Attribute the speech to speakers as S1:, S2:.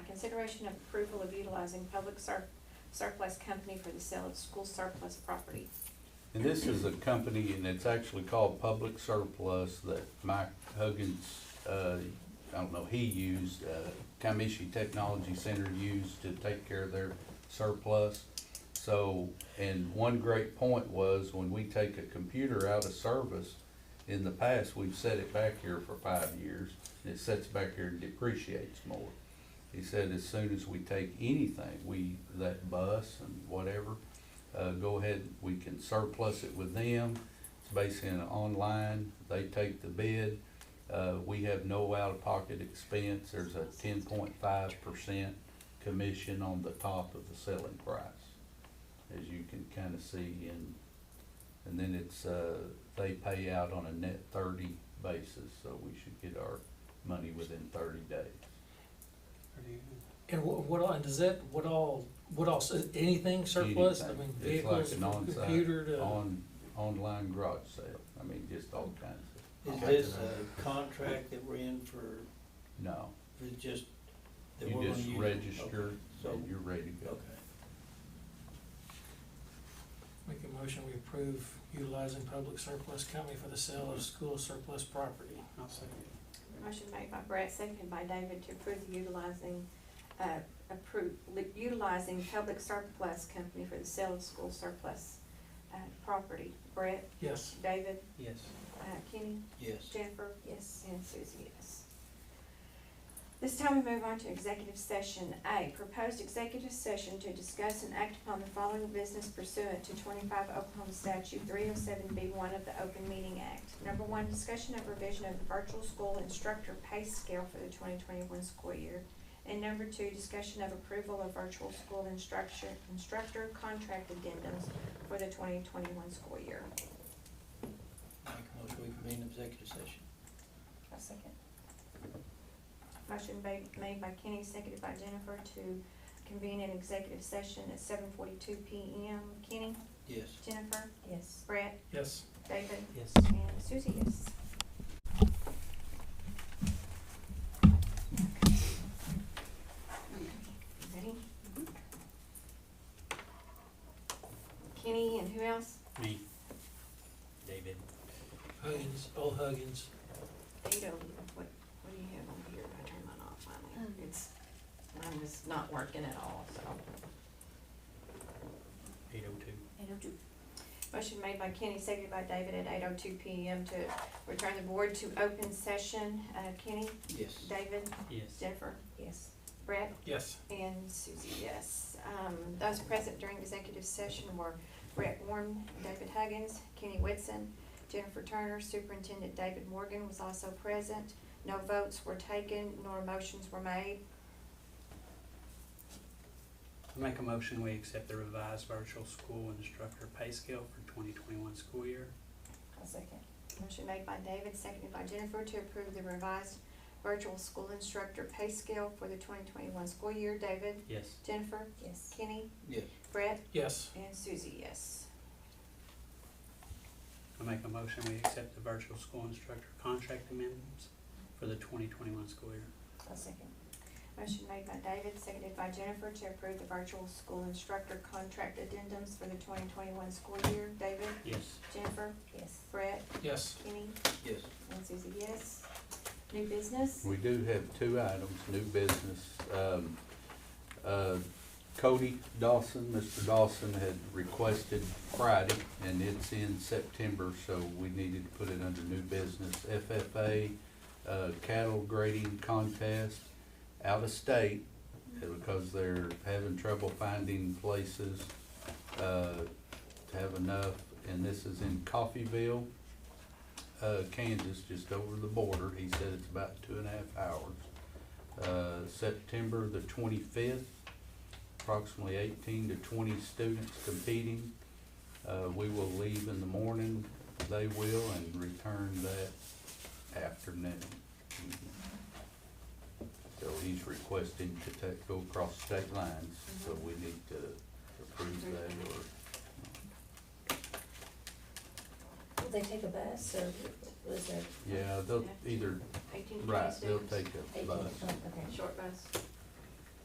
S1: consideration of approval of utilizing public sur- surplus company for the sale of school surplus property.
S2: And this is a company, and it's actually called Public Surplus that Mike Huggins, uh, I don't know, he used, uh, Comiskey Technology Center used to take care of their surplus. So, and one great point was when we take a computer out of service, in the past, we've set it back here for five years, and it sits back here and depreciates more. He said as soon as we take anything, we, that bus and whatever, uh, go ahead, we can surplus it with them. It's basically an online, they take the bid. Uh, we have no out-of-pocket expense, there's a ten point five percent commission on the top of the selling price. As you can kinda see in, and then it's, uh, they pay out on a net thirty basis, so we should get our money within thirty days.
S3: And what, what all, and does that, what all, what all, s- anything surplus, I
S2: Anything.
S3: mean,
S2: It's like
S3: vehicles,
S2: an on-site,
S3: computer to,
S2: On, online garage sale, I mean, just all kinds of,
S4: Is this a contract that we're in for,
S2: no.
S4: for just? that we're
S2: You
S4: gonna
S2: just
S4: use?
S2: register
S4: Okay, So,
S2: and you're ready to go.
S4: okay.
S3: make a motion, we approve utilizing public surplus company for the sale of school surplus property.
S5: I'll second it.
S1: Motion made by Brett, seconded by David to approve the utilizing, uh, approve, li- utilizing public surplus company for the sale of school surplus, uh, property. Brett,
S3: Yes,
S1: David,
S4: Yes.
S1: uh, Kenny?
S4: Yes.
S1: Jennifer? Yes. And Susie, yes. This time we move on to executive session. A, proposed executive session to discuss and act upon the following business pursuant to twenty-five Oklahoma statute three oh seven B one of the Open Meeting Act. Number one, discussion of revision of the virtual school instructor pay scale for the twenty twenty-one school year. And number two, discussion of approval of virtual school instructor, instructor contract addendums for the twenty twenty-one school year.
S4: Make a motion, we convene executive session.
S1: A second. Motion ba- made by Kenny, seconded by Jennifer to convene an executive session at seven forty-two P M. Kenny?
S4: Yes.
S1: Jennifer? Yes. Brett?
S3: yes.
S1: David?
S4: Yes.
S1: And Susie, yes. Ready? Kenny and who else?
S5: Me. David.
S3: Huggins, old Huggins,
S1: They don't, what, what do you have on here? I turned mine off finally. It's, mine was not working at all, so.
S5: Eight oh two.
S1: Motion made by Kenny, seconded by David at eight oh two P M to return the board to open session. Uh, Kenny,
S4: Yes.
S1: David,
S5: Yes.
S1: Jennifer? Yes. Brett?
S3: yes.
S1: And Susie, yes. Um, those present during executive session were Brett Warren, David Huggins, Kenny Whitson, Jennifer Turner, Superintendent David Morgan was also present. No votes were taken nor motions were made.
S5: I Make a motion, we accept the revised virtual school instructor pay scale for twenty twenty-one school year.
S1: A second. Motion made by David, seconded by Jennifer to approve the revised virtual school instructor pay scale for the twenty twenty-one school year. David,
S5: Yes.
S1: Jennifer? Yes. Kenny?
S4: Yes.
S1: Brett?
S3: Yes,
S1: And Susie, yes.
S5: I make a motion, we accept the virtual school instructor contract amendments for the twenty twenty-one school year.
S1: A second. Motion made by David, seconded by Jennifer to approve the virtual school instructor contract addendums for the twenty twenty-one school year. David?
S5: Yes.
S1: Jennifer? Yes. Brett?
S3: yes.
S1: Kenny?
S4: Yes.
S1: And Susie, yes. New business?
S2: We do have two items, new business. Um, uh, Cody Dawson, Mr. Dawson had requested Friday, and it's in September, so we needed to put it under new business. FFA uh, cattle grading contest out of state uh, because they're having trouble finding places uh, to have enough, and this is in Coffeyville uh, Kansas, just over the border. He said it's about two and a half hours. Uh, September the twenty-fifth, approximately eighteen to twenty students competing. Uh, we will leave in the morning, they will, and return that afternoon. So he's requesting to take, go across state lines, so we need to approve that or
S6: Will they take a bus or was there
S2: Yeah, they'll either,
S1: Eighteen
S2: right,
S1: twenty-six.
S2: they'll take a
S6: eighteen?
S2: bus.
S6: oh, okay.
S1: Short bus.